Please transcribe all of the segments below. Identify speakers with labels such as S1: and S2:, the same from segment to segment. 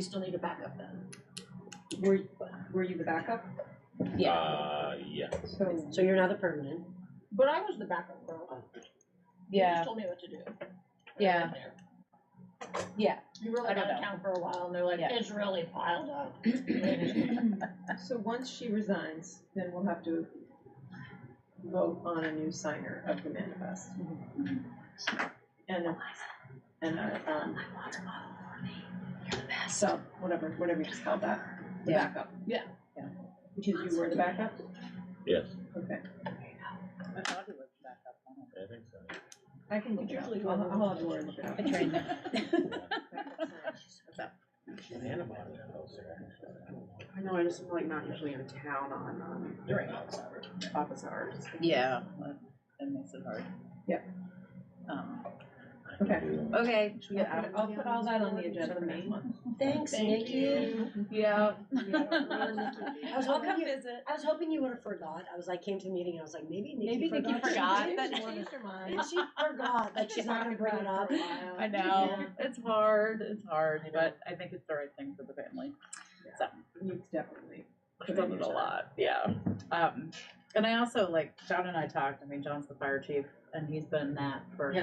S1: We still need a backup then.
S2: Were, were you the backup?
S1: Yeah,
S3: Uh, yeah.
S2: So,
S4: So you're not a permanent.
S1: but I was the backup for a while. You just
S5: Yeah,
S1: told me what to do. when I was
S5: Yeah.
S1: there.
S5: yeah.
S1: You were
S5: I
S1: like
S5: don't
S1: out of
S5: know.
S1: town for a while and they're like,
S5: Yeah.
S1: it's really piled up.
S2: so once she resigns, then we'll have to vote on a new signer of the manifest. And, uh, a- and a, um. So, whatever, whatever you just called that, the
S5: Yeah.
S2: backup.
S1: Yeah.
S5: Yeah.
S2: Because you were the backup?
S3: Yes,
S2: Okay.
S5: I thought he was back up on
S3: I think so.
S2: I can look it up. I'll, I'll have Lori look it up.
S5: it. I trained him.
S4: I know, I just feel like not usually in town on, um,
S5: During office hours.
S4: office hours.
S5: Yeah, that that makes it hard.
S2: Yeah.
S5: Um,
S2: Okay.
S5: Okay.
S2: Should we get out of- I'll put all that on the agenda for next month.
S4: Thanks,
S1: Thank
S4: Nikki.
S1: you.
S5: Yeah.
S4: I was
S5: I'll
S4: hoping
S5: come
S4: you,
S5: visit.
S4: I was hoping you would have forgot. I was like, came to the meeting and I was like, maybe Nikki
S5: Maybe Nikki
S4: forgot.
S5: forgot.
S4: She
S5: that-
S2: Changed her mind.
S4: did. She forgot, like she's not gonna bring it up.
S5: I know, it's hard, it's hard, but I think it's the right thing for the family.
S2: You definitely.
S5: It does it a lot, yeah. Um, and I also, like, John and I talked, I mean, John's the fire chief, and he's been that for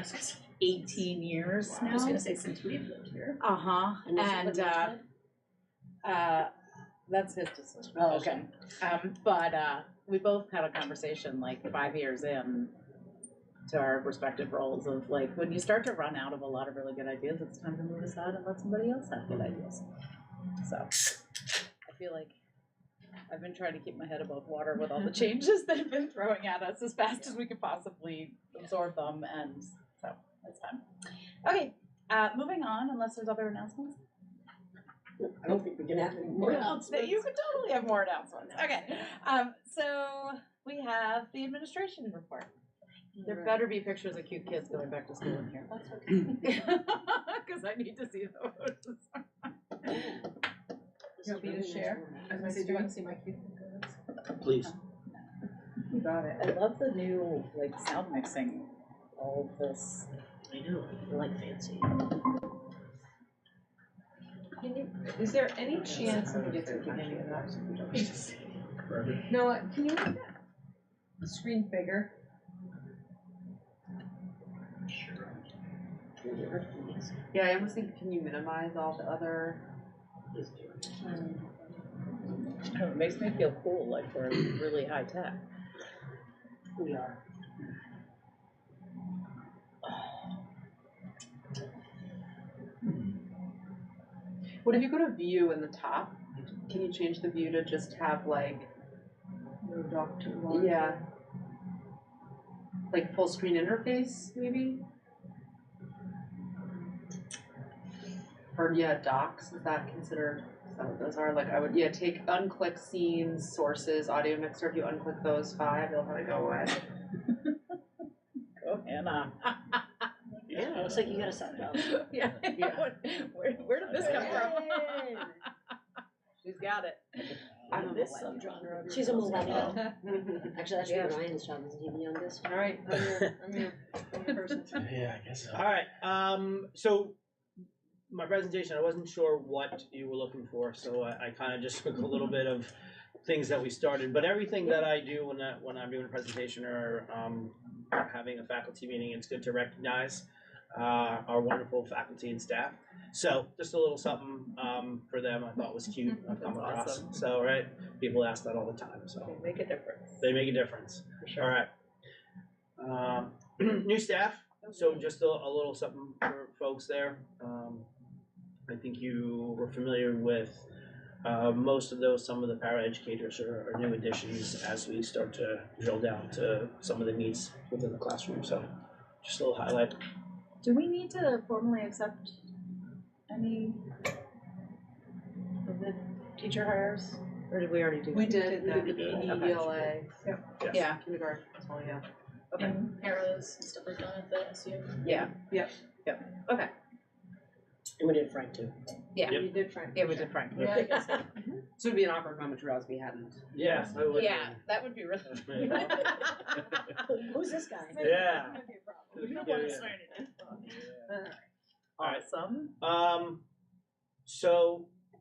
S5: eighteen years now.
S1: say since we've lived here.
S5: Uh-huh,
S4: And this is
S5: and,
S4: the next
S5: uh,
S4: one?
S5: uh, that's his decision.
S4: Oh, okay.
S5: Um, but, uh, we both had a conversation like five years in to our respective roles of like, when you start to run out of a lot of really good ideas, it's time to move aside and let somebody else have good ideas. So, I feel like I've been trying to keep my head above water with all the changes they've been throwing at us as fast as we could possibly absorb them, and so, that's fun. Okay, uh, moving on, unless there's other announcements?
S4: I don't think we can have any more.
S5: Well, You could totally have more announcements. Okay, um, so we have the administration report. There better be pictures of cute kids going back to school in here. That's okay. Cause I need to see those.
S2: You want me to share? I was gonna say, do you wanna see my cute?
S3: Please.
S2: You got it.
S5: I love the new, like, sound mixing, all of this.
S4: I know, I like fancy.
S2: Can you- Is there any chance I can get to the beginning of that? No, can you make that screen bigger?
S6: Yeah, I almost think, can you minimize all the other?
S5: I don't know, Oh, It makes me feel cool, like we're really high tech.
S4: We are.
S6: What if you go to view in the top? Can you change the view to just have like,
S2: Moved off to one.
S6: yeah, like full screen interface maybe? Or yeah, docs is that considered? Is that what those are? Like I would yeah take unclick scenes, sources, audio mixer. If you unclick those five, they'll probably go away.
S5: Go Hannah.
S4: Yeah, looks like you got a set up.
S5: Yeah.
S6: Yeah.
S5: Where, where did this come from? She's got it.
S6: I don't know
S5: This
S6: what.
S5: subgenre. of
S4: She's a
S5: yourself.
S4: millennial.
S6: All
S4: Actually, that should be Ryan's job, is he the youngest?
S6: right, I'm here. I'm here. I'm here first.
S3: Yeah, I guess so. All right. Um, so my presentation, I wasn't sure what you were looking for, so I, I kind of just took a little bit of things that we started. But everything that I do when I, when I'm doing a presentation or um, having a faculty meeting, it's good to recognize uh, our wonderful faculty and staff. So just a little something um, for them, I thought was cute. I've come
S6: That's
S3: across.
S6: awesome.
S3: So right, people ask that all the time. So
S5: Make a difference.
S3: they make a difference. All right. Um, new staff, so just a, a little something for folks there. Um, I think you were familiar with uh, most of those. Some of the paraeducators are, are new additions as we start to drill down to some of the needs within the classroom. So just a little highlight.
S5: Do we need to formally accept any of the teacher hires? Or did we already do that?
S6: We did, we did the
S3: did.
S6: PELA
S3: Yes.
S5: Yeah,
S6: kindergarten, as well, yeah.
S1: And arrows and stuff like that, that's you.
S5: yeah,
S4: And we did Frank too.
S5: Yeah.
S6: We did try.
S5: yeah, we did Frank.
S3: Yeah, I guess
S6: So it'd be an awkward moment to realize we hadn't.
S3: Yeah. I would-
S5: Yeah, that would be really.
S4: Who's this guy?
S3: Yeah.
S1: We don't
S3: Yeah,
S1: wanna
S3: yeah.
S1: swear to death.
S3: All right.
S5: Awesome.
S3: Um, so